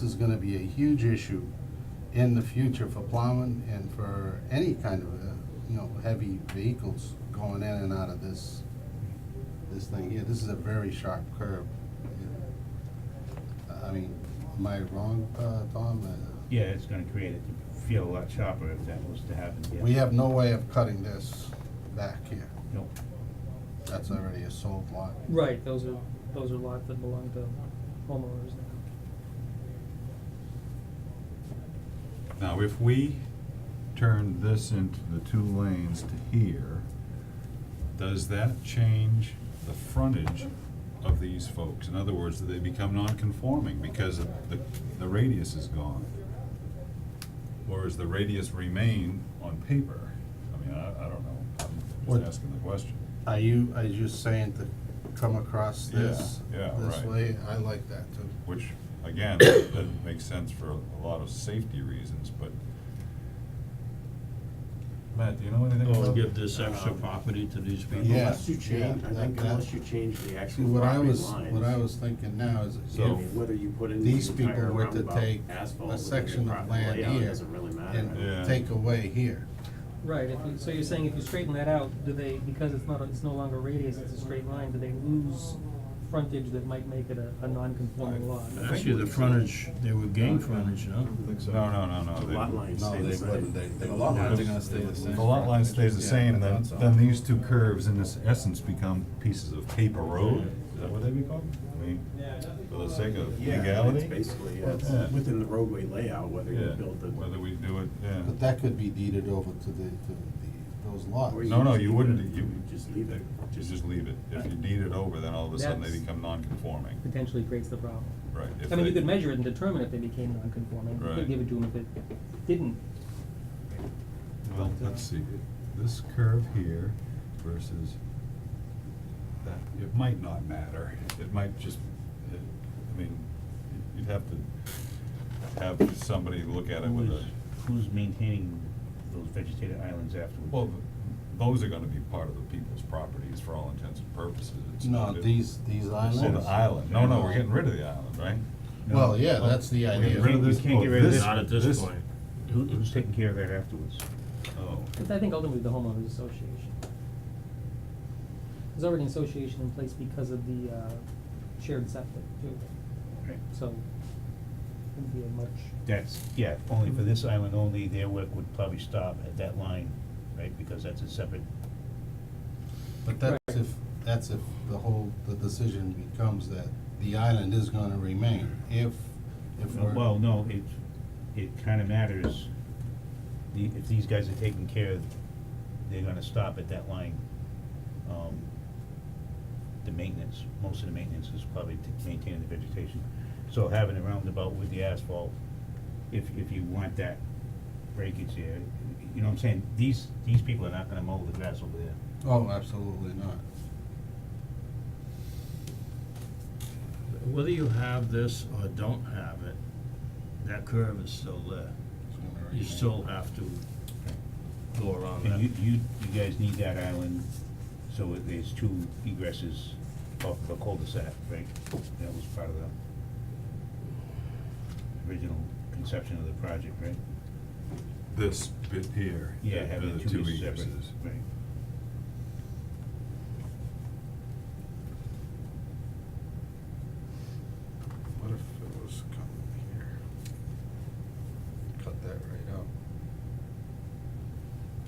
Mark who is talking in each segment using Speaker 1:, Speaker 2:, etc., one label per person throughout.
Speaker 1: This is gonna be a huge issue in the future for plowing and for any kind of, uh, you know, heavy vehicles going in and out of this, this thing here. This is a very sharp curve. I mean, am I wrong, uh, Tom? Uh,
Speaker 2: Yeah, it's gonna create it to feel a lot sharper if that was to happen, yeah.
Speaker 1: We have no way of cutting this back here.
Speaker 2: No.
Speaker 1: That's already a sold lot.
Speaker 3: Right, those are, those are lots that belong to homeowners now.
Speaker 4: Now, if we turn this into the two lanes to here, does that change the frontage of these folks? In other words, do they become non-conforming because of the, the radius is gone? Or is the radius remain on paper? I mean, I, I don't know, I'm
Speaker 1: What-
Speaker 4: just asking the question.
Speaker 1: Are you, are you saying to come across this,
Speaker 4: Yeah, yeah,
Speaker 1: this
Speaker 4: right.
Speaker 1: way? I like that too.
Speaker 4: Which, again, that makes sense for a lot of safety reasons, but. Matt, do you know anything about?
Speaker 5: Or give this extra
Speaker 6: Um,
Speaker 5: property to these people?
Speaker 1: Yeah.
Speaker 6: Unless you change, I
Speaker 1: yeah,
Speaker 6: think
Speaker 1: that-
Speaker 6: unless you change the
Speaker 1: See,
Speaker 6: actual
Speaker 1: what I
Speaker 6: property lines.
Speaker 1: was, what I was thinking now is
Speaker 6: I
Speaker 4: So-
Speaker 1: if
Speaker 6: mean, Whether you put in the
Speaker 1: these people
Speaker 6: entire
Speaker 1: were to take
Speaker 6: roundabout
Speaker 1: a
Speaker 6: asphalt with a
Speaker 1: section
Speaker 6: good
Speaker 1: of
Speaker 6: proper
Speaker 1: land
Speaker 6: layout,
Speaker 1: here
Speaker 6: it doesn't really matter.
Speaker 4: Yeah.
Speaker 1: and take away here.
Speaker 3: Right, if you, so you're saying if you straighten that out, do they, because it's not, a- it's no longer radius, it's a straight line, do they lose frontage that might make it a, a non-conforming lot?
Speaker 5: Actually, the frontage, they would gain frontage, no?
Speaker 4: No, no, no, no.
Speaker 6: The
Speaker 4: they-
Speaker 6: lot lines stay the same.
Speaker 1: The lot
Speaker 4: lines are
Speaker 7: gonna stay the same.
Speaker 4: The lot line stays the
Speaker 7: Yeah,
Speaker 4: same,
Speaker 7: I
Speaker 4: then,
Speaker 7: thought so.
Speaker 4: then these two curves in this essence become pieces of paper road, is that what they become? I mean, for the sake of
Speaker 6: Yeah, it's
Speaker 4: legality?
Speaker 6: basically, yeah, it's
Speaker 4: Yeah.
Speaker 6: within the roadway layout, whether you
Speaker 4: Yeah,
Speaker 6: build the.
Speaker 4: whether we do it, yeah.
Speaker 1: But that could be deeded over to the, to the, those lots.
Speaker 6: or
Speaker 4: No, no,
Speaker 6: just
Speaker 4: you
Speaker 6: leave
Speaker 4: wouldn't,
Speaker 6: it.
Speaker 4: you.
Speaker 6: Just leave it.
Speaker 4: You just leave it. If you deed it over, then all of a sudden they
Speaker 3: That's-
Speaker 4: become non-conforming,
Speaker 3: Potentially creates the problem.
Speaker 4: right? if
Speaker 3: I mean, you
Speaker 4: they-
Speaker 3: could measure it and determine if they became non-conforming, you
Speaker 4: Right.
Speaker 3: could give it to them if it didn't.
Speaker 4: Well, let's see, this curve here versus that, it might not matter, it might just, it, I mean, you'd have to have somebody look at it with
Speaker 2: Who's,
Speaker 4: a,
Speaker 2: who's maintaining those vegetated islands afterwards?
Speaker 4: well, those are gonna be part of the people's properties for all intents and purposes, it's
Speaker 1: No,
Speaker 4: not.
Speaker 1: these, these
Speaker 4: Oh, the
Speaker 1: islands.
Speaker 4: island, no, no, we're getting rid of the island, right?
Speaker 1: Well, yeah, that's the
Speaker 4: We're
Speaker 1: idea.
Speaker 4: getting rid of
Speaker 2: We
Speaker 4: this,
Speaker 2: can't
Speaker 4: oh,
Speaker 2: get rid of
Speaker 4: this,
Speaker 2: this-
Speaker 5: Not at this
Speaker 4: this-
Speaker 5: point.
Speaker 2: Who, who's taking care of that afterwards?
Speaker 4: Oh,
Speaker 3: It's, I think ultimately the homeowners association. There's already an association in place because of the, uh, shared septic too,
Speaker 2: Right.
Speaker 3: so wouldn't be a much
Speaker 2: That's, yeah, only for this island only, their work would probably stop at that line, right, because that's a separate,
Speaker 1: But that's if, that's if the whole, the decision becomes that the island is gonna remain if, if we're.
Speaker 2: well, no, it, it kinda matters. The, if these guys are taking care of, they're gonna stop at that line. Um, the maintenance, most of the maintenance is probably to maintain the vegetation. So having a roundabout with the asphalt, if, if you want that breakage there, you know what I'm saying? These, these people are not gonna mow the grass over there.
Speaker 1: Oh, absolutely not.
Speaker 5: Whether you have this or don't have it, that curve is still there.
Speaker 1: It's gonna
Speaker 5: You
Speaker 1: remain.
Speaker 5: still have to go around
Speaker 2: And
Speaker 5: that.
Speaker 2: you, you, you guys need that island, so it- there's two egresses off the cul-de-sac, right? That was part of the original conception of the project, right?
Speaker 4: this bit here.
Speaker 2: Yeah, having the two
Speaker 4: egresses.
Speaker 2: is separate, right?
Speaker 1: What if it was coming here? Cut that right out.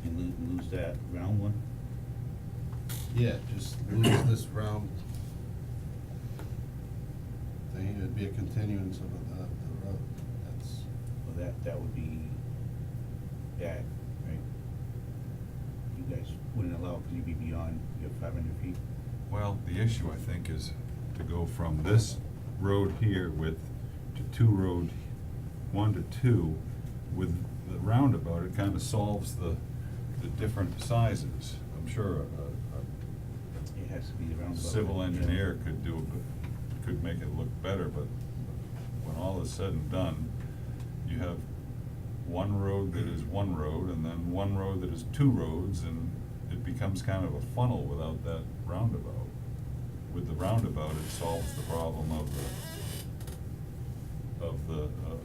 Speaker 2: And lo- lose that round one,
Speaker 1: Yeah, just lose this round. Thing, it'd be a continuance of the, of the road, that's,
Speaker 2: well, that, that would be bad, right? You guys wouldn't allow, because you'd be beyond your five hundred feet.
Speaker 4: Well, the issue, I think, is to go from this road here with, to two road, one to two, with the roundabout, it kinda solves the, the different sizes. I'm sure a,
Speaker 2: It has to be the
Speaker 4: a
Speaker 2: roundabout.
Speaker 4: civil
Speaker 2: Yeah.
Speaker 4: engineer could do, a good- could make it look better, but when all is said and done, you have one road that is one road, and then one road that is two roads, and it becomes kind of a funnel without that roundabout. With the roundabout, it solves the problem of the, of the, uh, of